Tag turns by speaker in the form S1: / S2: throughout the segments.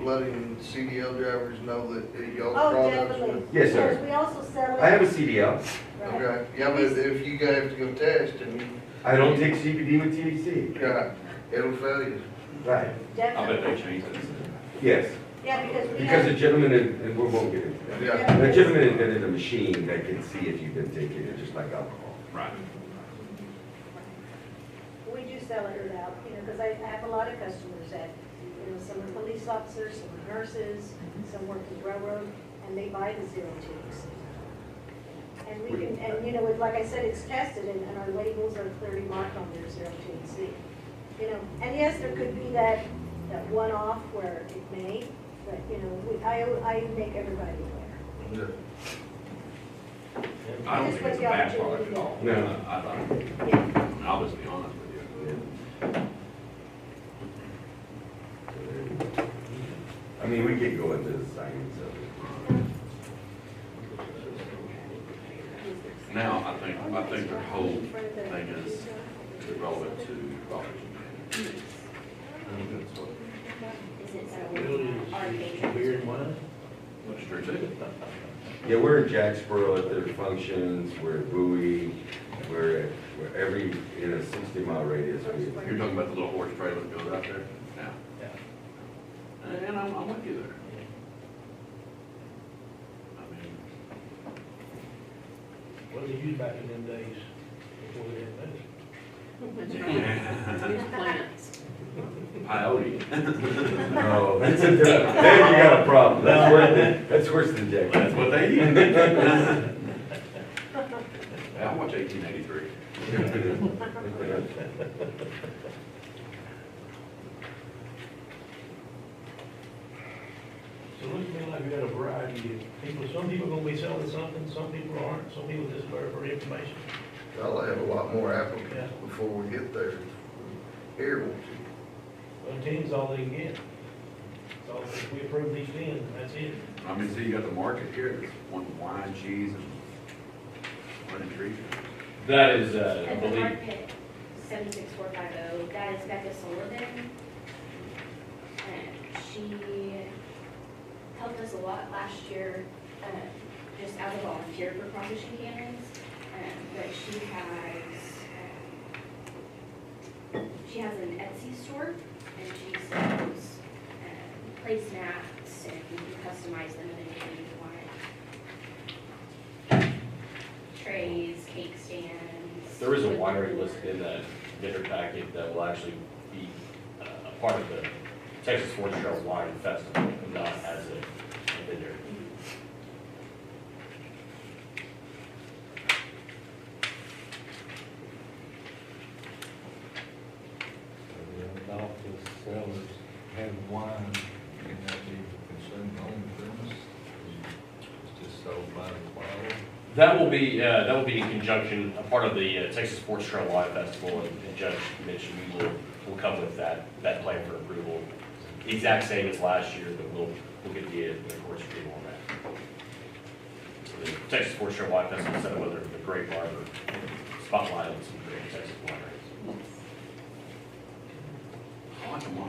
S1: letting CDL drivers know that that y'all
S2: Oh,
S1: products
S2: definitely.
S1: would.
S3: Yes, sir.
S2: Because we also sell it.
S3: I have a CDL.
S2: Right.
S1: Okay, yeah, but if you guys have to go test and, you-
S3: I don't take CBD with THC.
S1: yeah, it'll fail you.
S3: Right.
S4: I bet
S2: Definitely.
S4: they changed it.
S3: Yes,
S2: Yeah, because we
S3: because the
S2: have.
S3: gentleman, in- and we won't get into that.
S1: Yeah,
S3: The gentleman invented a machine that can see if you've been taking it, just like alcohol.
S4: Right.
S2: We do sell it without, you know, because I I have a lot of customers that, you know, some are police officers, some are nurses, some work in railroad, and they buy the zero twos. And we can, and you know, with- like I said, it's tested and, and our labels are clearly marked on their zero THC. You know, and yes, there could be that, that one-off where it may, but you know, we, I, I make everybody aware.
S1: Yeah.
S4: I don't think it's a bad product at all.
S3: No.
S4: I, I, like it.
S2: Yeah.
S4: And I'll just be honest with you.
S3: I mean, we could go into the science of it.
S4: Now, I think, I think their whole thing is is relevant to Robert's.
S5: Is it so our major?
S4: That's true too.
S3: Yeah, we're in Jacksboro at their functions, we're at Bowie, we're at, we're every, in a sixty mile radius. we-
S4: You're talking about the little horse trailer that goes out there now? Yeah. And I'm, I'm with you there. I mean,
S6: What did they use back in them days before they had medicine?
S5: Use plants.
S4: Coyote.
S3: Oh, that's a, different- there you got a problem, that's worse, that's worse than
S4: That's
S3: Jacksboro.
S4: what they use. Yeah, I watch eighteen eighty-three.
S6: So it looks to me like we got a variety of people, some people gonna be selling something, some people aren't, some people just looking for information.
S1: I'll have a lot more
S6: Yeah.
S1: applicants before we get there. Here, won't you?
S6: Well, ten's all they can get. So if we approve these ten, that's it.
S4: I mean, see, you got the market here, there's one wine, cheese, and one and trees.
S7: That is, uh, I
S5: At the
S7: believe,
S5: market, seventy-six four five oh, that is Becca Sullivan. And she helped us a lot last year, uh, just as a volunteer for Proposition Cannons. Um, but she has, um, she has an Etsy store and she sells, um, place mats and you can customize them in any way you want. Trays, cake stands.
S7: there is a winery listed in that bidder packet that will actually be uh, a part of the Texas Sports Trail Wine Festival, and not as a a bidder.
S8: The adoptive sellers have wine, can that be consumed on the premise? It's just sold by the bottle?
S7: That will be, uh, that will be in conjunction, a part of the uh, Texas Sports Trail Wine Festival, and and Judge mentioned we will, will come with that, that plan for approval. Exact same as last year, but we'll, we'll get the, uh, the court's approval on that. So the Texas Sports Trail Wine Festival, set up whether the great bar or spotlight on some great Texas wineries.
S4: I like them all.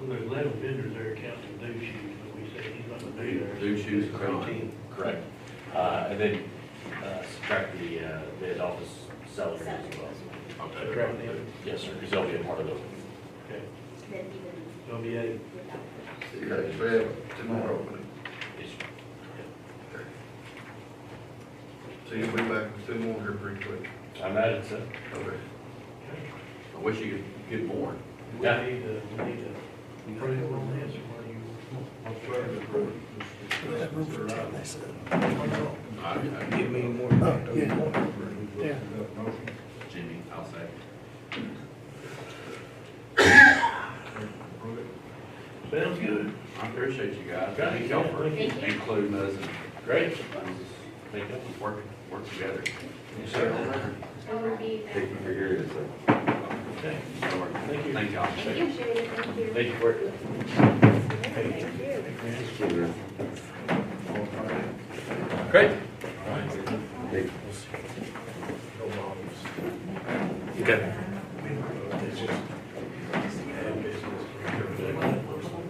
S6: Well, there's eleven vendors there counting new shoes, but we say he's not gonna do there.
S4: New shoes, come on.
S6: Eighteen.
S7: Correct. Uh, and then, uh, subtract the, uh, the office salary as well.
S4: Okay.
S6: Subtract them,
S7: Yes, sir, because that'll be a part of the
S6: okay,
S5: Then even
S6: so it'll be eight.
S5: without.
S1: See, like, if they have tomorrow,
S7: issue.
S1: so you'll be back with two more here pretty quick.
S7: I imagine so.
S1: Okay.
S4: I wish you could get more.
S6: We need
S7: Yeah.
S6: to, we need to approve on this, or do you?
S4: I, I,
S1: Give me more.
S8: Yeah.
S4: Jimmy, I'll say.
S6: Sounds good.
S4: I appreciate you guys. Thank y'all for
S5: Thank you.
S4: including us
S7: Great.
S4: and um,
S7: Thank you.
S4: working, working together.
S5: It would be.
S3: Thank you for hearing us. sir.
S6: Okay.
S4: Thank you. Thank y'all.
S5: Thank you.
S2: Appreciate it, thank you.
S7: Thank you for it.
S2: Thank you.
S3: Just kidding, man.
S7: Great.
S3: Thank you.
S7: Okay.